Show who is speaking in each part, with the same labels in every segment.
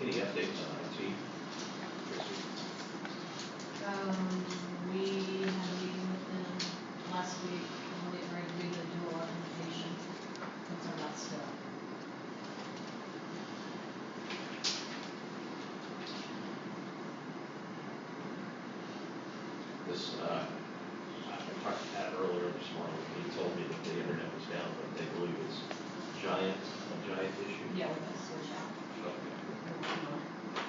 Speaker 1: Any updates on IT?
Speaker 2: Um, we had a meeting with them last week, and they were agreed to do a lot of information, that's our last step.
Speaker 1: This, uh, I I talked to Pat earlier this morning, and he told me that the internet was down, but they believe it's giant, a giant issue.
Speaker 2: Yeah, we're gonna switch out.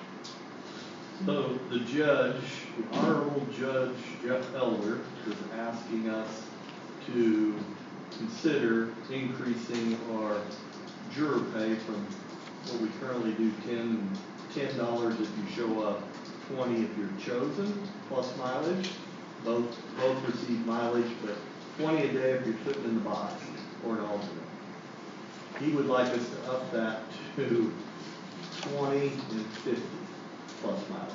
Speaker 1: Okay.
Speaker 3: So the judge, the Honorable Judge Jeff Elder is asking us to consider increasing our juror pay from what we currently do, ten, ten dollars if you show up, twenty if you're chosen, plus mileage. Both, both receive mileage, but twenty a day if you're sitting in the box or an alternate. He would like us to up that to twenty and fifty plus mileage.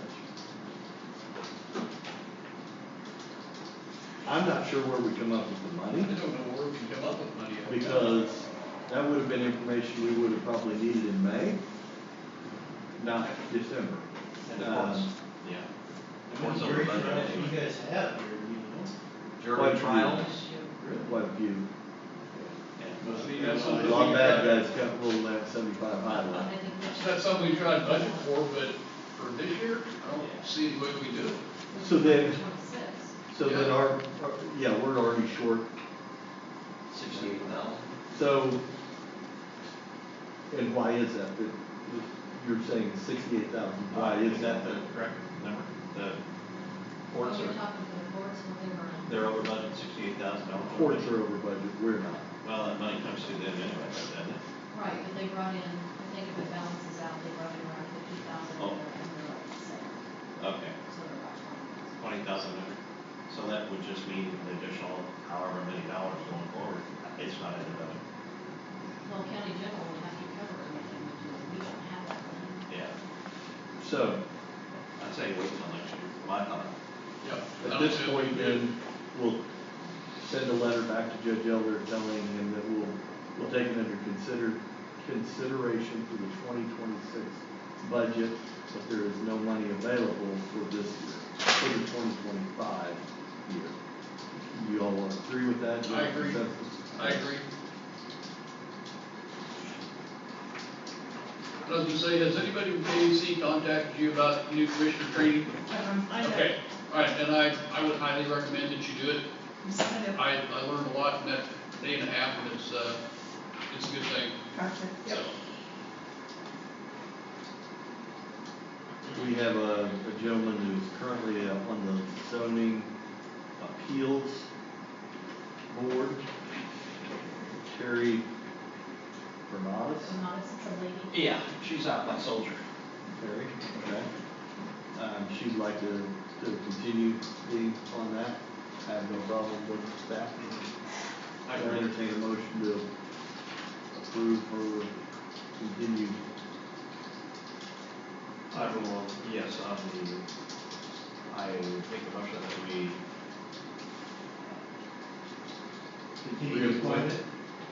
Speaker 3: I'm not sure where we come up with the
Speaker 4: I
Speaker 3: money,
Speaker 4: don't know where we can come up with money. on that.
Speaker 3: because that would have been information we would have probably needed in May, not December.
Speaker 1: And uh, of course,
Speaker 3: Um,
Speaker 1: yeah. Of
Speaker 5: How
Speaker 1: course,
Speaker 5: many
Speaker 1: I'm
Speaker 5: jury
Speaker 1: about to
Speaker 5: trials
Speaker 1: name
Speaker 5: you
Speaker 1: it.
Speaker 5: guys have here, you know?
Speaker 3: Quite a
Speaker 1: Jury
Speaker 3: few.
Speaker 1: trials.
Speaker 3: Quite a few,
Speaker 1: and-
Speaker 4: Well, see, that's
Speaker 3: a
Speaker 4: something
Speaker 3: lot
Speaker 4: we
Speaker 3: of bad
Speaker 4: tried-
Speaker 3: guys got rolled out seventy-five high
Speaker 2: Well,
Speaker 3: line.
Speaker 2: I think we should-
Speaker 4: That's something we tried to budget for, but for this year, I don't see what we do.
Speaker 3: So then-
Speaker 2: Twenty-six.
Speaker 3: So then our, our- yeah, we're already short
Speaker 1: Sixty-eight thousand?
Speaker 3: So, and why is that? That- You're saying sixty-eight thousand, why is that?
Speaker 1: Uh, the correct number? The courts are,
Speaker 2: We're talking to the courts, what they were on.
Speaker 1: they're over budget sixty-eight thousand dollars.
Speaker 3: Courts are over budget, we're not.
Speaker 1: Well, that money comes through them anyway, doesn't it?
Speaker 2: Right, but they brought in, I think if it balances out, they brought in around fifty thousand,
Speaker 1: Oh.
Speaker 2: and they're like, so,
Speaker 1: Okay,
Speaker 2: so they're about twenty.
Speaker 1: twenty thousand under. So that would just mean an additional however many dollars going forward. It's not in the budget.
Speaker 2: Well, county general would have to cover everything we do, we don't have that money.
Speaker 1: Yeah,
Speaker 3: So,
Speaker 1: I'd say wait till next year, my thought.
Speaker 4: Yep. I
Speaker 3: at
Speaker 4: don't
Speaker 3: this
Speaker 4: see what we
Speaker 3: point
Speaker 4: do.
Speaker 3: then, we'll send a letter back to Judge Elder telling him that we'll, we'll take it under consider, consideration for the twenty twenty-six budget, but there is no money available for this year, for the twenty twenty-five year. You all agree with that?
Speaker 4: I agree.
Speaker 3: Consensus?
Speaker 4: I agree. Doesn't say, has anybody from KEC contacted you about new commissioner training?
Speaker 6: Um, I have,
Speaker 4: Okay, all right, then I, I would highly recommend that you do it.
Speaker 6: I have,
Speaker 4: I, I learned a lot in that day and a half, and it's, uh, it's a good thing,
Speaker 6: gotcha,
Speaker 4: so.
Speaker 6: yep.
Speaker 3: We have a, a gentleman who's currently uh, on the zoning appeals board. Terry Bernadas,
Speaker 2: So not as a lady.
Speaker 1: Yeah, she's out like soldier.
Speaker 3: Terry, okay. Um, she'd like to, to continue being on that. I have no problem with that. I entertain a motion to approve her continued
Speaker 1: I will, yes, on the, I make a motion that we,
Speaker 3: Real
Speaker 5: Continued employment?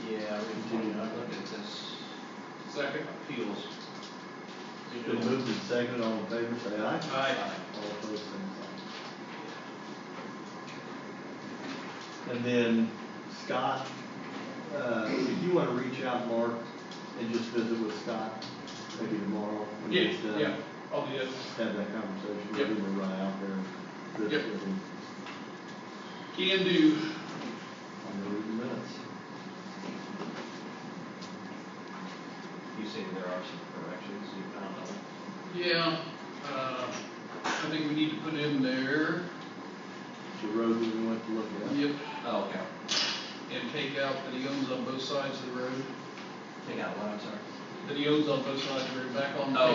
Speaker 1: yeah, we continue, I look at this
Speaker 4: Second?
Speaker 1: appeals.
Speaker 3: Been moved and seconded, all in favor, say aye.
Speaker 4: Aye.
Speaker 3: All opposed, same sign. And then Scott, uh, if you wanna reach out, Mark, and just visit with Scott, maybe tomorrow. when
Speaker 4: Yeah,
Speaker 3: he's done,
Speaker 4: yeah, I'll do that.
Speaker 3: Just have that conversation,
Speaker 4: Yep.
Speaker 3: maybe we'll run out there and visit
Speaker 4: Yep.
Speaker 3: with him
Speaker 4: Can do.
Speaker 3: on the reading minutes.
Speaker 1: You say there are some corrections you found on it?
Speaker 4: Yeah, uh, I think we need to put in there,
Speaker 3: The road that we went to look at.
Speaker 4: yep,
Speaker 1: Oh, okay.
Speaker 4: and take out that he owns on both sides of the road,
Speaker 1: Take out one, I'm sorry.
Speaker 4: that he owns on both sides of the road, back on
Speaker 1: Oh,
Speaker 4: page